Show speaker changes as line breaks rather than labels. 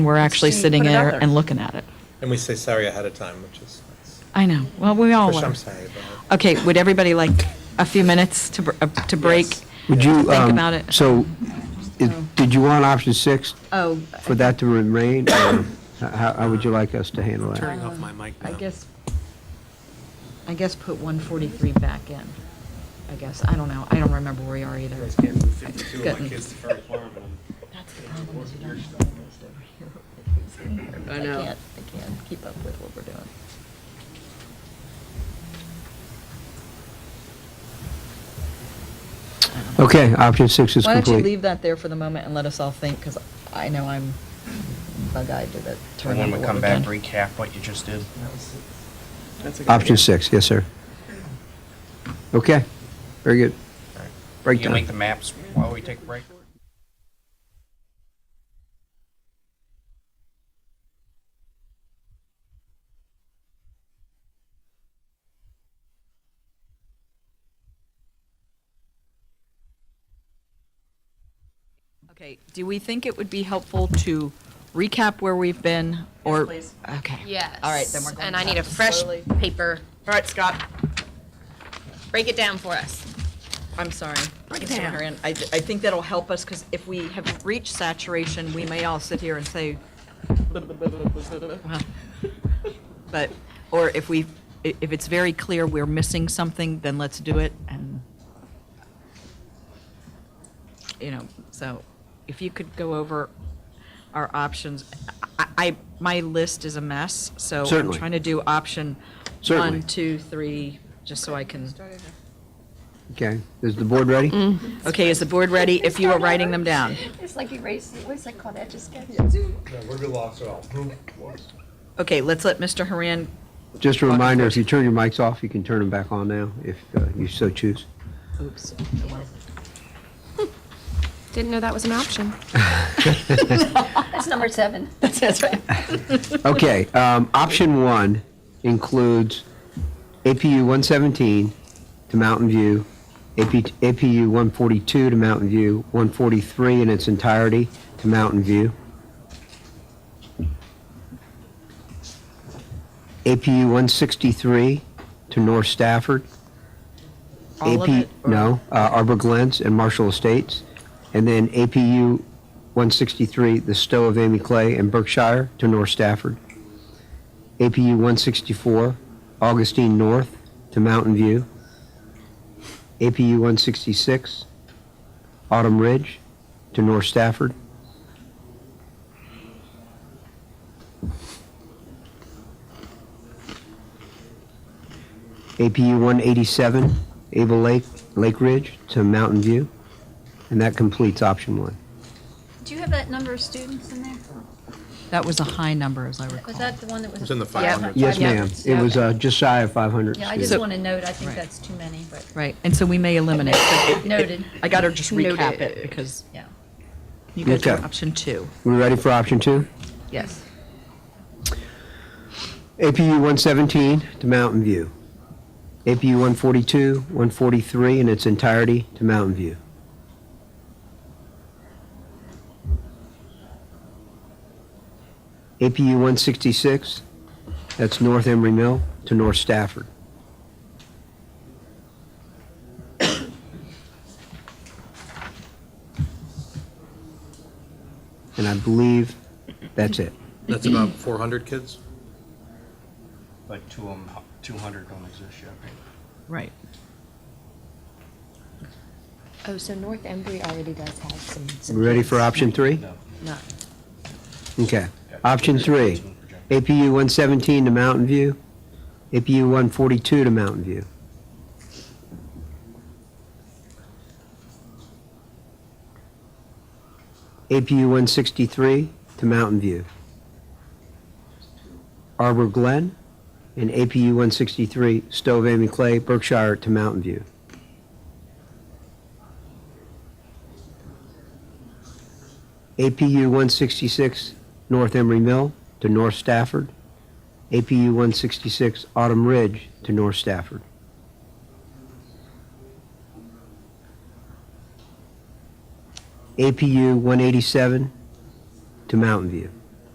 We're actually
See,
sitting
put it out
there
there.
and looking at it.
And we say sorry ahead of time, which is nice.
I know. Oh, Well, we all
Trish,
are.
I'm sorry about
Okay, would everybody like a few minutes to, br- uh, to break?
Yes.
Would you,
Think
um,
about it.
so, i- did you want option six
Oh,
for that to remain? or How, how would you like us to handle that?
Turning off my mic now.
I guess, I guess put 143 back in, I guess. I don't know. I don't remember where we are either. Good. That's the problem, is you don't have the list over here. It's in here, but
I know.
I can't, I can't keep up with what we're doing.
Okay, option six is
Why
complete.
don't you leave that there for the moment and let us all think, because I know I'm bug-eyed to the
And
turn
when
of
we
what
come
we're
back,
doing.
recap what you just did.
That's a good
Option
idea.
six, yes, sir. Okay, very good.
Can you
Breakdown.
make the maps while we take a break?
Okay, do we think it would be helpful to recap where we've been or?
please.
Okay.
Yes.
All right, then we're going
And I
back
need a
to
fresh
slowly-
paper.
All right, Scott.
Break it down for us.
I'm sorry. Mr. Maharian. I, th- I think that'll help us because if we have reached saturation, we may all sit here and say, but, or if we, i- if it's very clear we're missing something, then let's do it and, you know, so if you could go over our options. I, I, my list is a mess, so I'm
Certainly.
trying to do option
Certainly.
one, two, three, just so I can.
Okay, is the board ready?
Mm. Okay, is the board ready if you are writing them down?
It's like erase, what's that called, that just
that. No, we're lost all.
Okay, let's let Mr. Haran,
Just a reminder, if you turn your mics off, you can turn them back on now, if uh, you so choose.
oops.
Didn't know that was an option. That's number seven.
That's right.
Okay, um, option one includes APU one seventeen to Mountain View, AP, APU one forty-two to Mountain View, one forty-three in its entirety to Mountain View. APU one sixty-three to North Stafford.
All of
AP
it, or-
No, uh, Arbor Glens and Marshall Estates. And then APU 163, the Stowe of Amy Clay and Berkshire to North Stafford. APU 164, Augustine North to Mountain View. APU 166, Autumn Ridge to North Stafford. APU 187, Able Lake, Lake Ridge to Mountain View. And that completes option one.
Do you have that number of students in there?
That was a high number, as I recall.
Was that the one that was?
It's in the 500.
Yes, ma'am. It was
Okay.
uh, just shy of 500
Yeah, I
students.
just want to note, I think
Right.
that's too many, but,
Right, and so we may eliminate, but it- it-
Noted.
I gotta just recap it
Noted.
because
yeah.
you go
Okay.
to option two.
We ready for option two?
Yes.
APU 117 to Mountain View. APU 142, 143 in its entirety to Mountain View. APU 166, that's North Emery Mill to North Stafford. And I believe that's it.
That's about 400 kids?
Like two of them, two hundred don't exist yet, right?
Right.
Oh, so North Embry already does have some. some
We ready
kids.
for option three?
No.
Okay. Option three, APU 117 to Mountain View, APU 142 to Mountain View. APU 163 to Mountain View. Arbor Glen and APU 163 Stove Amy Clay, Berkshire to Mountain View. APU 166 North Emery Mill to North Stafford. APU 166 Autumn Ridge to North Stafford. APU 187 to Mountain View.